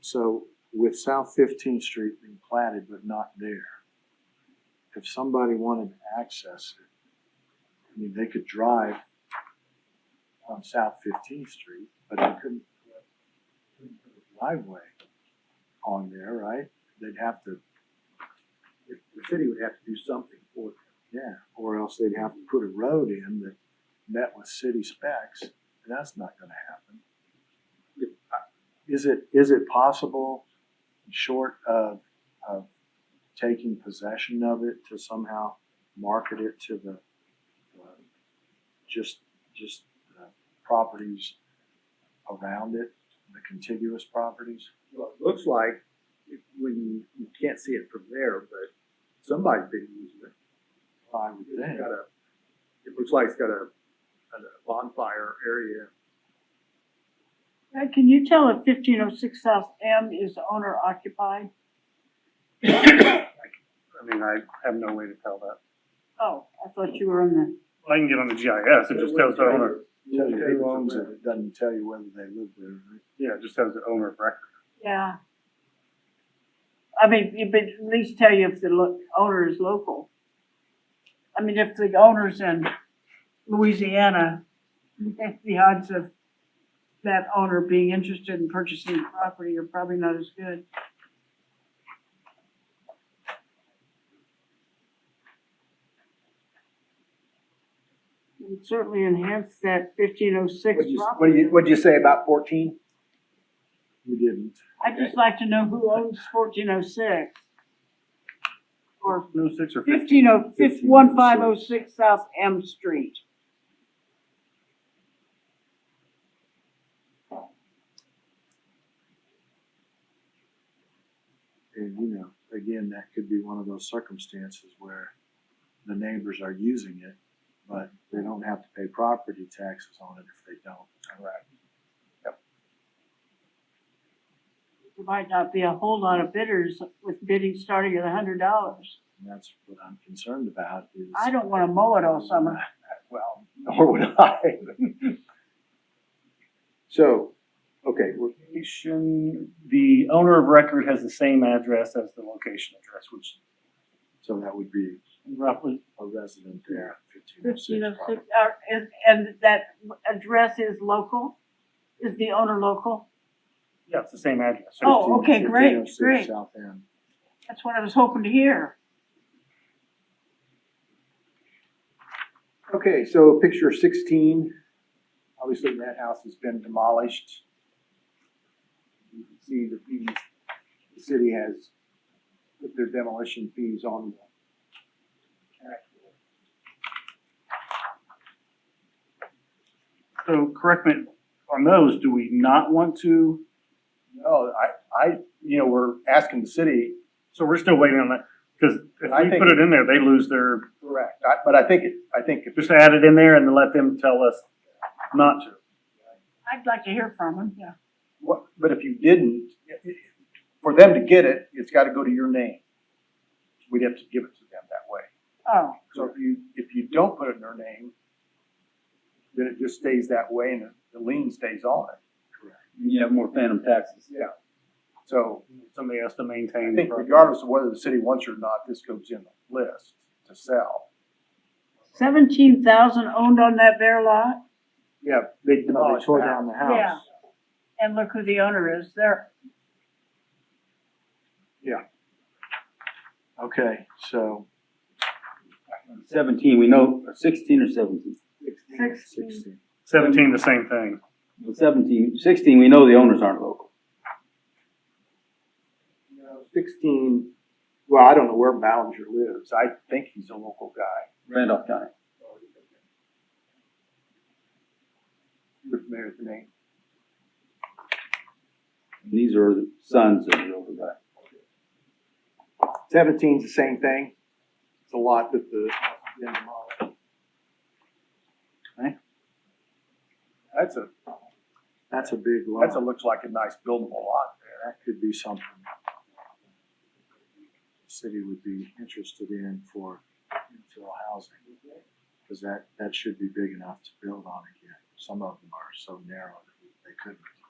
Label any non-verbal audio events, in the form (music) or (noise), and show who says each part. Speaker 1: So with South Fifteenth Street being platted but not there, if somebody wanted to access it, I mean, they could drive on South Fifteenth Street, but they couldn't couldn't put a driveway on there, right? They'd have to,
Speaker 2: The the city would have to do something for it.
Speaker 1: yeah, or else they'd have to put a road in that met with city specs, and that's not gonna happen. Is it, is it possible, short of, of taking possession of it, to somehow market it to the, uh, just, just uh properties around it, the contiguous properties?
Speaker 2: Well, it looks like, it- when you, you can't see it from there, but somebody's been using it.
Speaker 1: I would
Speaker 2: It's
Speaker 1: think.
Speaker 2: got a, it looks like it's got a, a bonfire area.
Speaker 3: Uh, can you tell if fifteen oh six South M is owner occupied?
Speaker 4: I mean, I have no way to tell that.
Speaker 3: Oh, I thought you were on the,
Speaker 4: I can get on the GIS, it just tells the owner,
Speaker 1: Tell you who owns it, (laughs) it doesn't tell you whether they live there, right?
Speaker 4: yeah, it just tells the owner of record.
Speaker 3: yeah. I mean, it- but at least tell you if the lo- owner is local. I mean, if the owner's in Louisiana, (laughs) the odds of that owner being interested in purchasing the property are probably not as good. It would certainly enhance that fifteen oh six property.
Speaker 2: what'd you say about fourteen?
Speaker 1: We didn't.
Speaker 3: I'd just like to know who owns fourteen oh six. Or
Speaker 4: No six or fifteen,
Speaker 3: fifteen oh, fif- one five oh six South M Street.
Speaker 1: And you know, again, that could be one of those circumstances where the neighbors are using it, but they don't have to pay property taxes on it if they don't. Correct.
Speaker 3: There might not be a whole lot of bidders with bidding starting at a hundred dollars.
Speaker 1: And that's what I'm concerned about is.
Speaker 3: I don't wanna mow it all summer.
Speaker 2: Well, nor would I.
Speaker 1: So, okay, well,
Speaker 4: location, the owner of record has the same address as the location address, which
Speaker 1: so that would be
Speaker 4: roughly,
Speaker 1: a resident there, fifteen oh six.
Speaker 3: Fifteen oh six, uh, and, and that address is local? Is the owner local?
Speaker 4: yeah, it's the same address. So
Speaker 3: Oh, okay, great, great.
Speaker 1: South End.
Speaker 3: That's what I was hoping to hear.
Speaker 2: Okay, so picture sixteen, obviously that house has been demolished. You can see the fees, the city has put their demolition fees on the actual
Speaker 4: So correct me, on those, do we not want to,
Speaker 5: No, I, I, you know, we're asking the city,
Speaker 4: so we're still waiting on that, cause if
Speaker 5: I
Speaker 4: we
Speaker 5: think-
Speaker 4: put it in there, they lose their,
Speaker 5: correct, I, but I think, it- I think if
Speaker 4: just add it in there and let them tell us not to.
Speaker 3: I'd like to hear from him, yeah.
Speaker 5: What, but if you didn't, for them to get it, it's gotta go to your name. We'd have to give it to them that way.
Speaker 3: Oh,
Speaker 5: So if you, if you don't put it in their name, then it just stays that way and the lien stays on it.
Speaker 6: you have more phantom taxes.
Speaker 5: Yeah. So
Speaker 4: Somebody has to maintain.
Speaker 5: I
Speaker 4: the
Speaker 5: think
Speaker 4: property.
Speaker 5: regardless of whether the city wants it or not, this goes in the list to sell.
Speaker 3: seventeen thousand owned on that bare lot?
Speaker 5: Yeah, they
Speaker 1: No, they
Speaker 5: demolished
Speaker 1: tore
Speaker 5: that.
Speaker 1: down the house.
Speaker 3: Yeah. And look who the owner is, they're
Speaker 1: Okay, so
Speaker 6: Seventeen, we know, or sixteen or seventeen?
Speaker 3: sixteen.
Speaker 1: sixteen.
Speaker 4: Seventeen, the same thing.
Speaker 6: Well, Seventeen, sixteen, we know the owners aren't local.
Speaker 5: you know, sixteen, well, I don't know where Ballinger lives, I think he's a local guy.
Speaker 6: Randolph County.
Speaker 5: You're familiar with the name?
Speaker 6: These are the sons of the local guy.
Speaker 5: Seventeen's the same thing, it's a lot that the.
Speaker 6: Okay.
Speaker 5: That's a,
Speaker 1: That's a big lot.
Speaker 5: that's a, looks like a nice buildable lot there.
Speaker 1: that could be something the city would be interested in for infill housing. Cause that, that should be big enough to build on again. Some of them are so narrow that they couldn't.